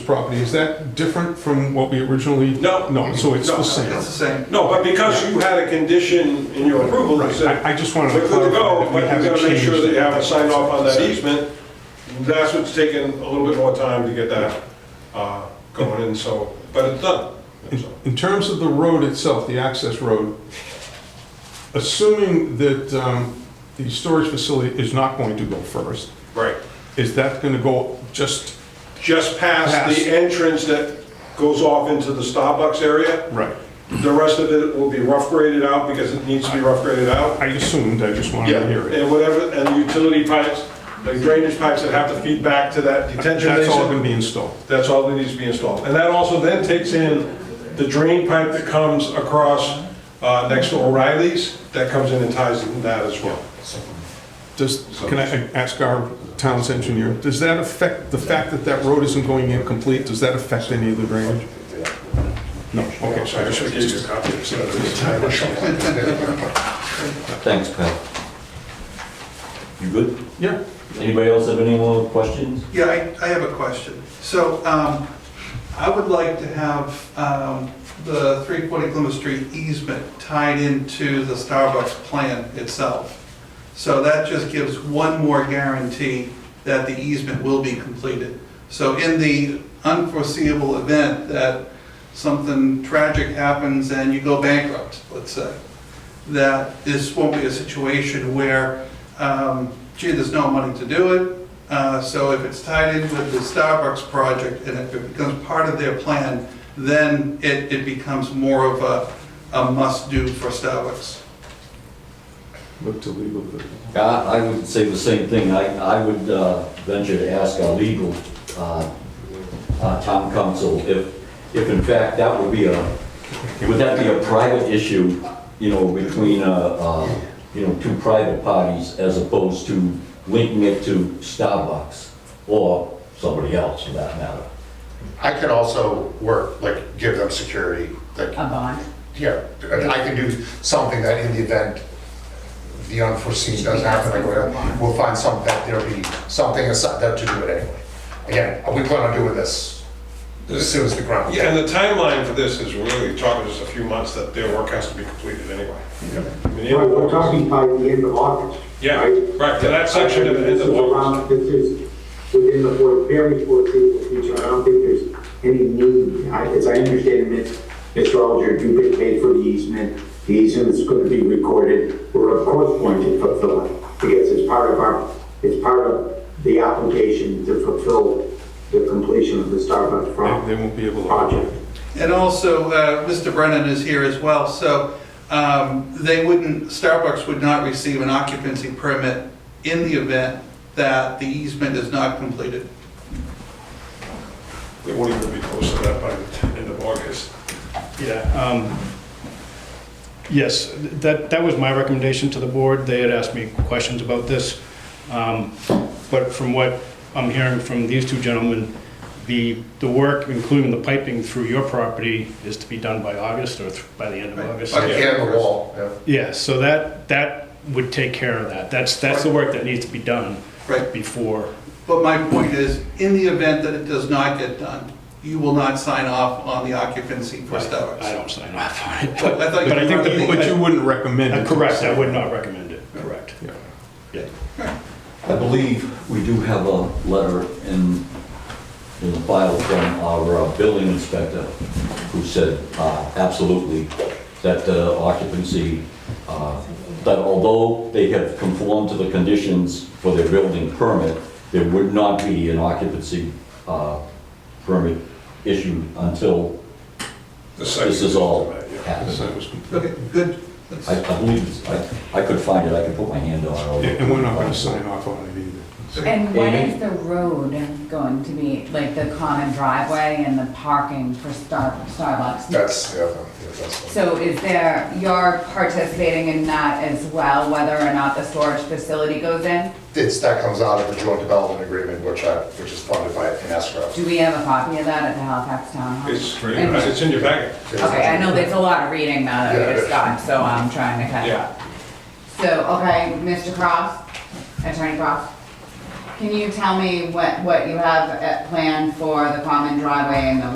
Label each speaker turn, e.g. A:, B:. A: property, is that different from what we originally?
B: No.
A: No, so it's the
B: No.
A: same.
C: It's the same.
B: No, but because you had a condition in your approval that said,
A: I I just wanted
B: we're
A: to
B: good to go,
A: clarify
B: but
A: that
B: you
A: we haven't
B: gotta make sure that you
A: changed.
B: have a sign off on that easement. That's what's taken a little bit more time to get that uh, going in, so, but it's done.
A: In- In terms of the road itself, the access road, assuming that um, the storage facility is not going to go first,
B: Right.
A: is that going to go just?
B: Just past
A: Past.
B: the entrance that goes off into the Starbucks area,
A: Right.
B: the rest of it will be rough graded out because it needs to be rough graded out.
A: I assumed, I just wanted to hear it.
B: And whatever, and the utility pipes, the drainage pipes that have to feed back to that detention basin.
A: That's all going to be installed.
B: That's all that needs to be installed. And that also then takes in the drain pipe that comes across uh, next to O'Reilly's, that comes in and ties in that as well.
A: Does, can I ask our town's engineer, does that affect, the fact that that road isn't going in complete, does that affect any of the drainage? No, okay, so I just-
B: give you a copy of
D: Thanks, Pat. You good?
A: Yeah.
D: Anybody else have any more questions?
C: Yeah, I, I have a question. So, um, I would like to have, um, the three forty Plymouth Street easement tied into the Starbucks plan itself. So that just gives one more guarantee that the easement will be completed. So in the unforeseeable event that something tragic happens and you go bankrupt, let's say, that this won't be a situation where, um, gee, there's no money to do it, Uh, So if it's tied in with the Starbucks project and if it becomes part of their plan, then it, it becomes more of a, a must-do for Starbucks.
A: Look to legal.
D: I, I would say the same thing. I, I would uh, venture to ask our legal, uh, uh, town council if, if in fact that would be a, would that be a private issue, you know, between, uh, uh, you know, two private parties as opposed to linking it to Starbucks or somebody else for that matter?
E: I could also work, like, give them security, like,
F: a bond.
E: yeah, I can do something that in the event the unforeseen does happen, like, whatever, we'll find some, that there'll be something aside that to do it anyway. Again, we plan on doing this as soon as the ground.
B: Yeah, and the timeline for this is really talking just a few months that their work has to be completed anyway. I mean,
G: We're we're
B: it-
G: talking by the end of August.
B: Yeah,
G: right?
B: right, to that section at the end of August.
G: This is within the fore- very foreseeable future. I don't think there's any need. I- As I understand it, Mr. Alger, you get paid for the easement. The easement's going to be recorded. We're of course going to fulfill it because it's part of our, it's part of the application to fulfill the completion of the Starbucks pro-
A: They won't be able to.
G: project.
C: And also, uh, Mr. Brennan is here as well, so um, they wouldn't, Starbucks would not receive an occupancy permit in the event that the easement is not completed.
B: They won't even be close to that by the end of August.
H: Yeah, um, yes, that, that was my recommendation to the board. They had asked me questions about this. Um, But from what I'm hearing from these two gentlemen, the, the work, including the piping through your property, is to be done by August or th- by the end of August.
E: Like, yeah, the wall, yeah.
H: Yeah, so that, that would take care of that. That's, that's the work that needs to be done
C: Right.
H: before.
C: But my point is, in the event that it does not get done, you will not sign off on the occupancy for Starbucks.
H: I don't sign off on it.
C: Well, I thought you
H: But I think
C: were-
H: the-
A: But you wouldn't recommend
H: Uh,
A: it?
H: Correct, I would not recommend it, correct.
A: Yeah.
H: Yeah.
D: I believe we do have a letter in, in the file from our uh, building inspector who said, uh, absolutely, that uh, occupancy, uh, that although they have conformed to the conditions for their building permit, there would not be an occupancy uh, permit issued until
B: The site
D: this is all
B: Yeah.
A: The
D: happened.
A: site was complete.
C: Okay, good. That's-
D: I I believe, it's- I I could find it, I could put my hand on it.
A: And we're not going to sign off on it either.
F: And what
D: Amy?
F: is the road going to be, like the common driveway and the parking for Star Starbucks?
E: That's, yeah, yeah, that's.
F: So is there, you're participating in that as well, whether or not the storage facility goes in?
E: It's, that comes out of the joint development agreement, which I, which is funded by an escrow.
F: Do we have a copy of that at the Halifax Town Hall?
B: It's,
F: And-
B: it's in your packet.
F: Okay, I know there's a lot of reading now that
E: Yeah,
F: we just got, so I'm trying to catch
B: Yeah.
F: up. So, okay, Mr. Cross, Attorney Cross, Can you tell me what, what you have uh, planned for the common driveway and the